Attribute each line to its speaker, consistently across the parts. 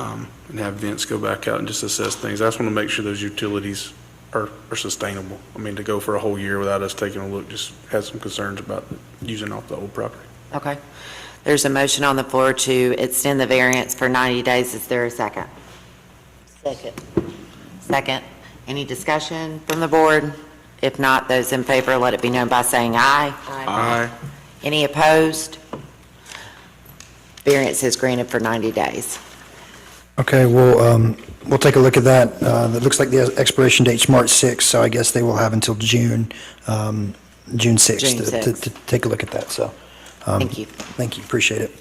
Speaker 1: um, and have Vince go back out and just assess things. I just want to make sure those utilities are are sustainable. I mean, to go for a whole year without us taking a look, just had some concerns about using off the old property.
Speaker 2: Okay. There's a motion on the floor to extend the variance for 90 days. Is there a second?
Speaker 3: Second.
Speaker 2: Second. Any discussion from the board? If not, those in favor, let it be known by saying aye.
Speaker 1: Aye.
Speaker 2: Any opposed? Variance is granted for 90 days.
Speaker 4: Okay, we'll, um, we'll take a look at that. Uh, It looks like the expiration date's March 6th, so I guess they will have until June, um, June 6th
Speaker 2: June
Speaker 4: to- to-
Speaker 2: 6th.
Speaker 4: to take a look at that, so. um,
Speaker 2: Thank you.
Speaker 4: Thank you, appreciate it.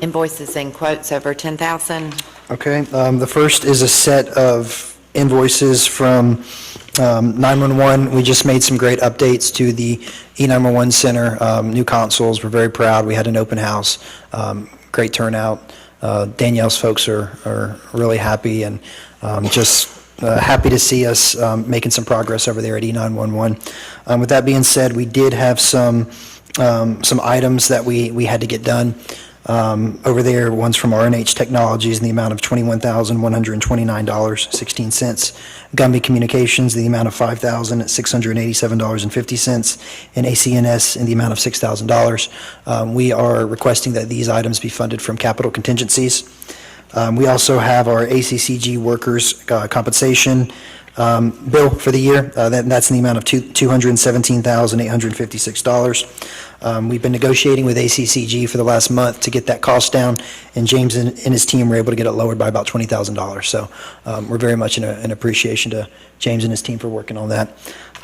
Speaker 2: Invoices and quotes over 10,000.
Speaker 4: Okay, um, the first is a set of invoices from um, 911. We just made some great updates to the E E911 Center, um, new consoles, we're very proud, we had an open house, um, great turnout. Uh, Danielle's folks are, are really happy and um, just uh, happy to see us um, making some progress over there at E E911. Um, With that being said, we did have some, um, some items that we, we had to get done um, over there. One's from RNH Technologies in the amount of $21,129.16. Gumby Communications, the amount of $5,687.50. And ACNS in the amount of $6,000. Um, We are requesting that these items be funded from capital contingencies. Um, We also have our ACCG workers' uh, compensation um, bill for the year. Uh, that- That's in the amount of two- $217,856. Um, We've been negotiating with ACCG for the last month to get that cost down, and James and and his team were able to get it lowered by about $20,000. So um, we're very much in a- in appreciation to James and his team for working on that.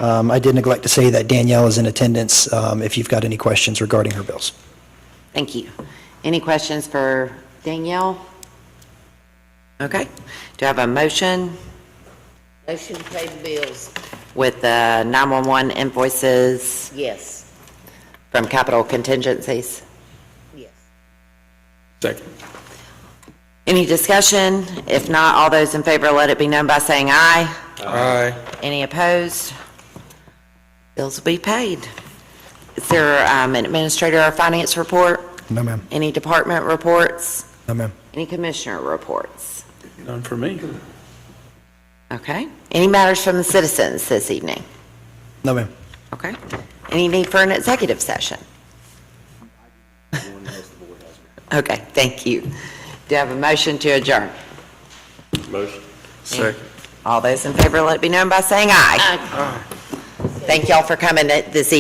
Speaker 4: Um, I did neglect to say that Danielle is in attendance um, if you've got any questions regarding her bills.
Speaker 2: Thank you. Any questions for Danielle? Okay. Do I have a motion
Speaker 3: Motion to pay the bills,
Speaker 2: with the 911 invoices
Speaker 3: yes,
Speaker 2: from capital contingencies?
Speaker 3: yes.
Speaker 1: Second.
Speaker 2: Any discussion? If not, all those in favor, let it be known by saying aye.
Speaker 1: Aye.
Speaker 2: Any opposed? Bills will be paid. Is there um, an administrator or finance report?
Speaker 4: No, ma'am.
Speaker 2: Any department reports?
Speaker 4: No, ma'am.
Speaker 2: Any commissioner reports?
Speaker 1: None for me.
Speaker 2: Okay. Any matters from the citizens this evening?
Speaker 4: No, ma'am.
Speaker 2: Okay. Any need for an executive session? Okay, thank you. Do you have a motion to adjourn?
Speaker 1: Second.
Speaker 2: All those in favor, let it be known by saying aye. Thank y'all for coming this evening.